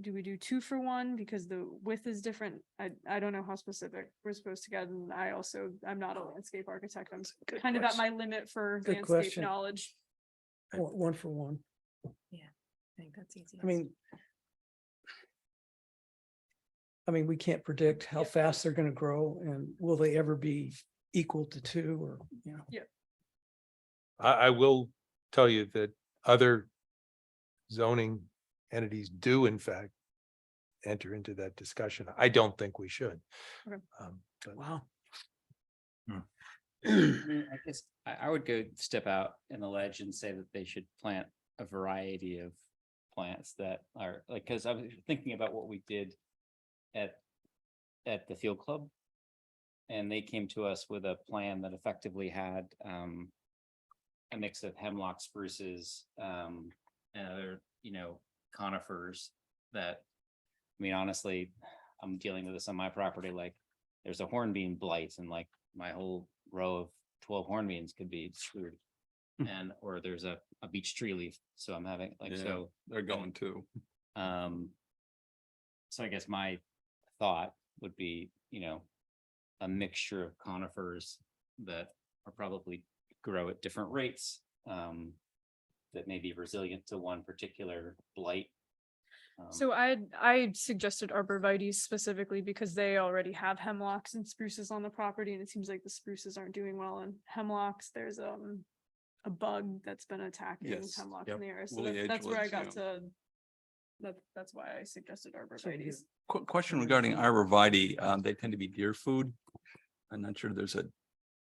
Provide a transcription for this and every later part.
do we do two for one because the width is different? I, I don't know how specific we're supposed to get, and I also, I'm not a landscape architect, I'm s- Good kind of at question. my limit for Good landscape question. knowledge. One, one for one. I think that's easy. I mean. I mean, we can't predict how fast they're gonna grow and will they ever be equal to two or, you know. I, I will tell you that other zoning entities do in fact enter into that discussion. I don't think we should. Okay. Um, but- Wow. I mean, I guess I, I would go step out in the ledge and say that they should plant a variety of plants that are like, cause I was thinking about what we did at, at the field club. And they came to us with a plan that effectively had, um, a mix of hemlock spruces, um, and other, you know, conifers that, I mean, honestly, I'm dealing with this on my property, like, there's a hornbeam blight and like my whole row of twelve hornbeams could be screwed. And, or there's a, a beech tree leaf, so I'm having, like, Hmm. Yeah. so, They're going to. um. So I guess my thought would be, you know, a mixture of conifers that are probably grow at different rates. Um, that may be resilient to one particular blight. Um, So I, had- I had suggested arborvitae's specifically because they already have hemlocks and spruces on the property and it seems like the spruces aren't doing well in hemlocks. There's, um, a bug that's been attacking Yes, hemlock yep. in the area. So Woolly that- that's where I edgelords, got yeah. to, that, that's why I suggested arborvitae's. Qu- question regarding arborvitae, um, they tend to be deer food. I'm not sure there's a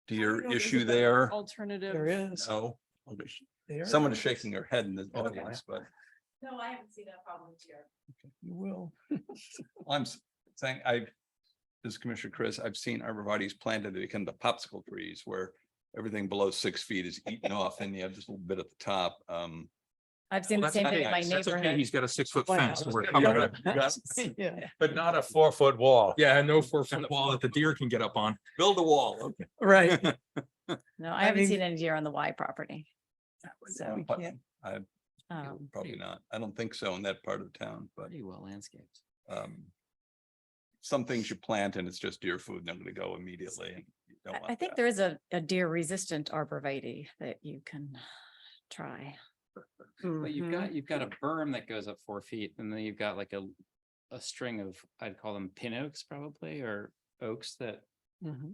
deer know if there's issue a- there. Alternative. There is. No. Okay, sh- There Someone is. is shaking their head in the Oh, yeah. audience, but No, I haven't seen that problem this year. You will. I'm s- saying I, this is Commissioner Chris, I've seen arborvitae's planted, they become the popsicle trees where everything below six feet is eaten off and you have just a little bit at the top. Um, I've seen the that's same not thing in my nice. That's neighborhood. got a six foot Wow. Yeah, But not a four foot wall. Yeah, no four foot wall that the deer can get up on. build a wall. okay. right. No, I I haven't mean- seen any deer on the Y property. So, We can't- um, Probably not. I don't think so in that part of town, but. Pretty well landscaped. um. Some things you plant and it's just deer food and they're gonna go immediately and. you don't I, I want think that. there is a, a deer resistant arborvitae that you can try. But you've Mhm. got, you've got a berm that goes up four feet and then you've got like a, a string of, I'd call them pin oaks probably, or oaks that Mhm.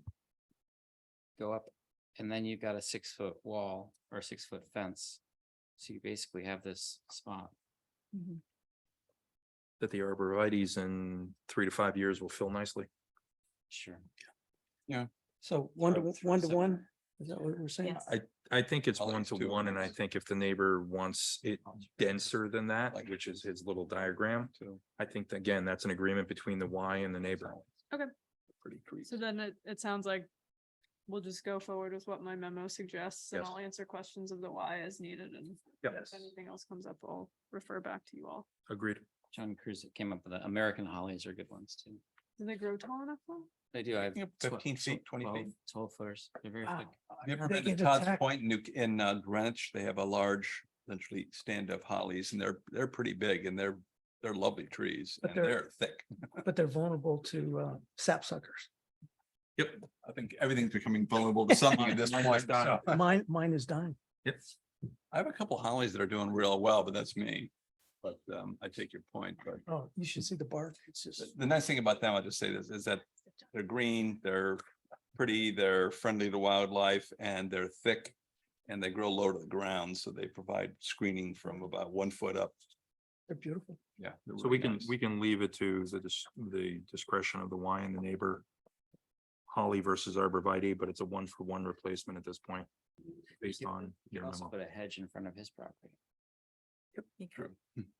go up. And then you've got a six foot wall or a six foot fence. So you basically have this spot. That the arborvitae's in three to five years will fill nicely. Sure. So one to, Or through one to separate. one, is that what we're saying? Yes. I think it's I like one to two one, and I ones. think if the neighbor wants it denser than that, Like- which is his little diagram. So, I think, that, again, that's an agreement between the Y and the neighbor. Pretty creepy. So then it, it sounds like we'll just go forward with what my memo suggests and Yes. I'll answer questions of the why as needed and if anything else comes up, I'll refer back to you all. Agreed. John Cruz came up with the American hollies are good ones too. Do they grow tall enough though? They do. I have Yep, Ah. 15 feet, 20 feet. Twelve footers. They're very Wow. thick. Have You ever They been to get Todd's attacked. Point in New, in uh, Greenwich? They have a large, essentially stand-up hollies and they're, they're pretty big and they're, they're lovely trees But and they're- they're thick. But they're vulnerable to uh sapsuckers. Yep. I think everything's becoming vulnerable to something at this point. so. Mine, mine is dying. Yes. I have a couple hollies that are doing real well, but that's me. But um, I take your point, but Oh, you should see the bark. It's just. The- The nice thing about them, I'll just say this, is that they're green, they're pretty, they're friendly to wildlife, and they're thick. And they grow low to the ground, so they provide screening from about one foot up. They're beautiful. Yeah. they're So really we can, nice. we can leave it to the, dis- the discretion of the Y and the neighbor. Holly versus arborvitae, but it's a one for one replacement at this point, based You could- on You your could also memo. put a hedge in front of his property, True.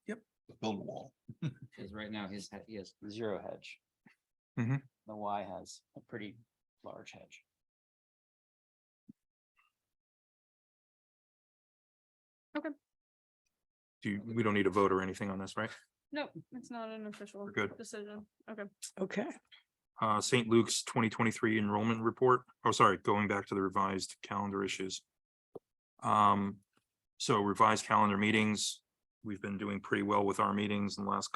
Yep, build a wall. because right now his, he has zero hedge. Mm-hmm. Mhm. The Y has a pretty large hedge. Do, you- we don't need a vote or anything on this, right? No, it's not an official good. decision. Okay. Okay. Uh, St. Luke's twenty twenty-three enrollment report. Oh, sorry, going back to the revised calendar issues. Um, so revised calendar meetings, we've been doing pretty well with our meetings in the last